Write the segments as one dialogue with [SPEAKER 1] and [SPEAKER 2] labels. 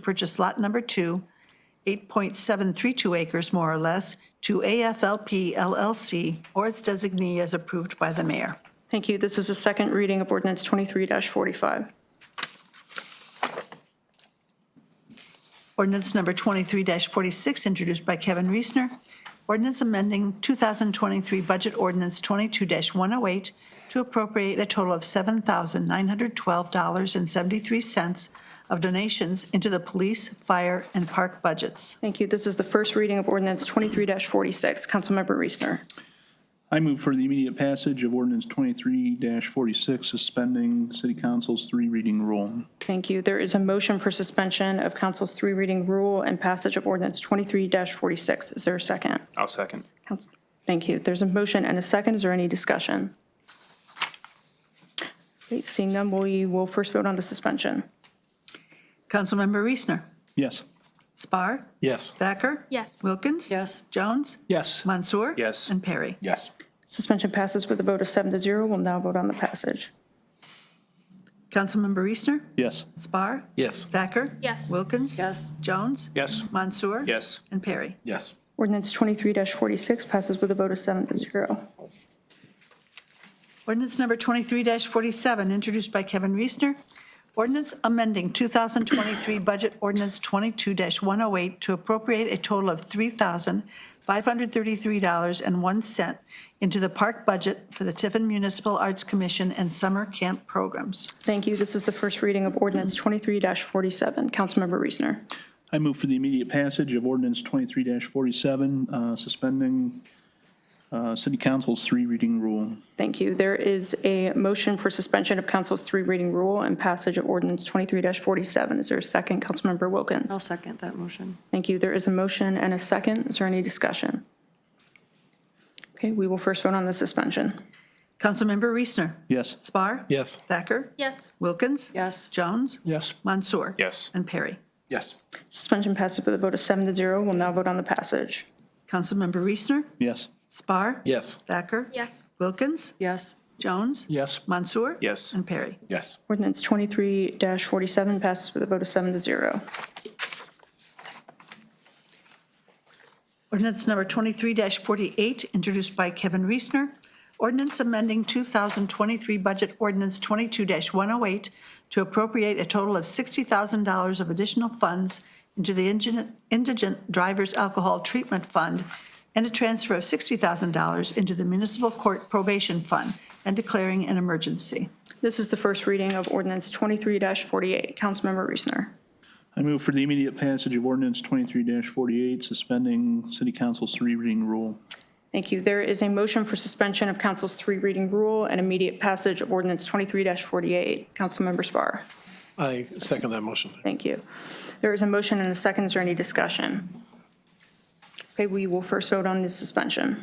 [SPEAKER 1] purchase lot number two, 8.732 acres more or less, to AFLP LLC or its designee as approved by the mayor.
[SPEAKER 2] Thank you. This is the second reading of ordinance 23-45.
[SPEAKER 1] Ordinance number 23-46, introduced by Kevin Reesner. Ordinance amending 2023 Budget Ordinance 22-108 to appropriate a total of $7,912.73 of donations into the police, fire, and park budgets.
[SPEAKER 2] Thank you. This is the first reading of ordinance 23-46. Councilmember Reesner.
[SPEAKER 3] I move for the immediate passage of ordinance twenty-three forty-six, suspending city council's three reading rule.
[SPEAKER 2] Thank you. There is a motion for suspension of council's three reading rule and passage of ordinance 23-46. Is there a second?
[SPEAKER 4] I'll second.
[SPEAKER 2] Council- Thank you. There's a motion and a second. Is there any discussion? Great. Seeing none, we will first vote on the suspension.
[SPEAKER 1] Councilmember Reesner.
[SPEAKER 3] Yes.
[SPEAKER 1] Spar.
[SPEAKER 5] Yes.
[SPEAKER 1] Thacker.
[SPEAKER 6] Yes.
[SPEAKER 1] Wilkins.
[SPEAKER 7] Yes.
[SPEAKER 1] Jones.
[SPEAKER 4] Yes.
[SPEAKER 1] Mansour.
[SPEAKER 4] Yes.
[SPEAKER 1] And Perry.
[SPEAKER 5] Yes.
[SPEAKER 2] Suspension passes with a vote of seven to zero. We'll now vote on the passage.
[SPEAKER 1] Councilmember Reesner.
[SPEAKER 3] Yes.
[SPEAKER 1] Spar.
[SPEAKER 5] Yes.
[SPEAKER 1] Thacker.
[SPEAKER 6] Yes.
[SPEAKER 1] Wilkins.
[SPEAKER 7] Yes.
[SPEAKER 1] Jones.
[SPEAKER 4] Yes.
[SPEAKER 1] Mansour.
[SPEAKER 4] Yes.
[SPEAKER 1] And Perry.
[SPEAKER 5] Yes.
[SPEAKER 2] Ordinance 23-46 passes with a vote of seven to zero.
[SPEAKER 1] Ordinance number 23-47, introduced by Kevin Reesner. Ordinance amending 2023 Budget Ordinance 22-108 to appropriate a total of $3,533.01 into the park budget for the Tiffin Municipal Arts Commission and summer camp programs.
[SPEAKER 2] Thank you. This is the first reading of ordinance 23-47. Councilmember Reesner.
[SPEAKER 3] I move for the immediate passage of ordinance twenty-three forty-seven, uh, suspending, uh, city council's three reading rule.
[SPEAKER 2] Thank you. There is a motion for suspension of council's three reading rule and passage of ordinance 23-47. Is there a second? Councilmember Wilkins.
[SPEAKER 7] I'll second that motion.
[SPEAKER 2] Thank you. There is a motion and a second. Is there any discussion? Okay, we will first vote on the suspension.
[SPEAKER 1] Councilmember Reesner.
[SPEAKER 3] Yes.
[SPEAKER 1] Spar.
[SPEAKER 5] Yes.
[SPEAKER 1] Thacker.
[SPEAKER 6] Yes.
[SPEAKER 1] Wilkins.
[SPEAKER 7] Yes.
[SPEAKER 1] Jones.
[SPEAKER 4] Yes.
[SPEAKER 1] Mansour.
[SPEAKER 4] Yes.
[SPEAKER 1] And Perry.
[SPEAKER 5] Yes.
[SPEAKER 2] Suspension passes with a vote of seven to zero. We'll now vote on the passage.
[SPEAKER 1] Councilmember Reesner.
[SPEAKER 3] Yes.
[SPEAKER 1] Spar.
[SPEAKER 5] Yes.
[SPEAKER 1] Thacker.
[SPEAKER 6] Yes.
[SPEAKER 1] Wilkins.
[SPEAKER 7] Yes.
[SPEAKER 1] Jones.
[SPEAKER 4] Yes.
[SPEAKER 1] Mansour.
[SPEAKER 4] Yes.
[SPEAKER 1] And Perry.
[SPEAKER 5] Yes.
[SPEAKER 2] Ordinance 23-47 passes with a vote of seven to zero.
[SPEAKER 1] Ordinance number 23-48, introduced by Kevin Reesner. Ordinance amending 2023 Budget Ordinance 22-108 to appropriate a total of $60,000 of additional funds into the Indigent- Indigent Drivers Alcohol Treatment Fund and a transfer of $60,000 into the Municipal Court Probation Fund and declaring an emergency.
[SPEAKER 2] This is the first reading of ordinance 23-48. Councilmember Reesner.
[SPEAKER 3] I move for the immediate passage of ordinance twenty-three forty-eight, suspending city council's three reading rule.
[SPEAKER 2] Thank you. There is a motion for suspension of council's three reading rule and immediate passage of ordinance 23-48. Councilmember Spar.
[SPEAKER 5] I second that motion.
[SPEAKER 2] Thank you. There is a motion and a second. Is there any discussion? Okay, we will first vote on the suspension.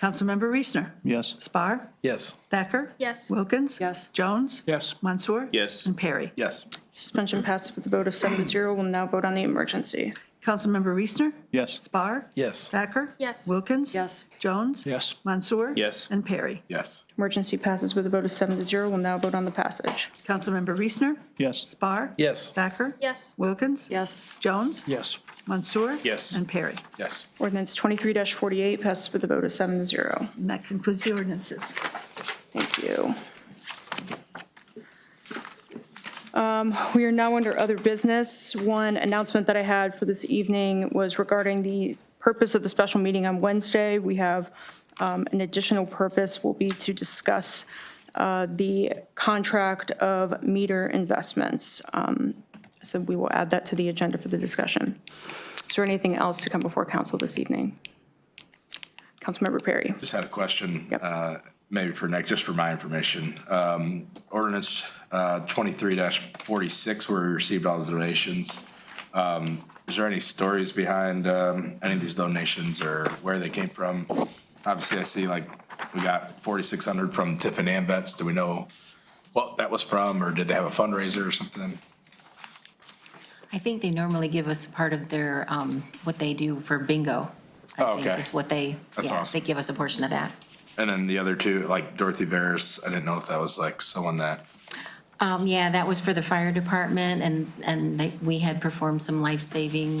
[SPEAKER 1] Councilmember Reesner.
[SPEAKER 3] Yes.
[SPEAKER 1] Spar.
[SPEAKER 5] Yes.
[SPEAKER 1] Thacker.
[SPEAKER 6] Yes.
[SPEAKER 1] Wilkins.
[SPEAKER 7] Yes.
[SPEAKER 1] Jones.
[SPEAKER 4] Yes.
[SPEAKER 1] Mansour.
[SPEAKER 4] Yes.
[SPEAKER 1] And Perry.
[SPEAKER 5] Yes.
[SPEAKER 2] Suspension passes with a vote of seven to zero. We'll now vote on the emergency.
[SPEAKER 1] Councilmember Reesner.
[SPEAKER 3] Yes.
[SPEAKER 1] Spar.
[SPEAKER 5] Yes.
[SPEAKER 1] Thacker.
[SPEAKER 6] Yes.
[SPEAKER 1] Wilkins.
[SPEAKER 7] Yes.
[SPEAKER 1] Jones.
[SPEAKER 4] Yes.
[SPEAKER 1] Mansour.
[SPEAKER 4] Yes.
[SPEAKER 1] And Perry.
[SPEAKER 5] Yes.
[SPEAKER 2] Emergency passes with a vote of seven to zero. We'll now vote on the passage.
[SPEAKER 1] Councilmember Reesner.
[SPEAKER 3] Yes.
[SPEAKER 1] Spar.
[SPEAKER 5] Yes.
[SPEAKER 1] Thacker.
[SPEAKER 6] Yes.
[SPEAKER 1] Wilkins.
[SPEAKER 7] Yes.
[SPEAKER 1] Jones.
[SPEAKER 4] Yes.
[SPEAKER 1] Mansour.
[SPEAKER 4] Yes.
[SPEAKER 1] And Perry.
[SPEAKER 5] Yes.
[SPEAKER 2] Ordinance 23-48 passes with a vote of seven to zero.
[SPEAKER 1] And that concludes the ordinances.
[SPEAKER 2] Thank you. Um, We are now under other business. One announcement that I had for this evening was regarding the purpose of the special meeting on Wednesday. We have um, an additional purpose will be to discuss uh, the contract of meter investments. Um, So we will add that to the agenda for the discussion. Is there anything else to come before council this evening? Councilmember Perry?
[SPEAKER 8] Just had a question,
[SPEAKER 2] Yep.
[SPEAKER 8] uh, maybe for Nick, just for my information. Um, Ordinance uh, 23-46, where we received all the donations. Um, Is there any stories behind um, any of these donations or where they came from? Obviously, I see like we got 4,600 from Tiffin and Vets. Do we know what that was from, or did they have a fundraiser or something?
[SPEAKER 9] I think they normally give us part of their, um, what they do for bingo.
[SPEAKER 8] Oh,
[SPEAKER 9] I
[SPEAKER 8] okay.
[SPEAKER 9] think is what they,
[SPEAKER 8] That's
[SPEAKER 9] yeah,
[SPEAKER 8] awesome.
[SPEAKER 9] they give us a portion of that.
[SPEAKER 8] And then the other two, like Dorothy Veras, I didn't know if that was like someone that
[SPEAKER 9] Um, yeah, that was for the fire department, and, and they- we had performed some life-saving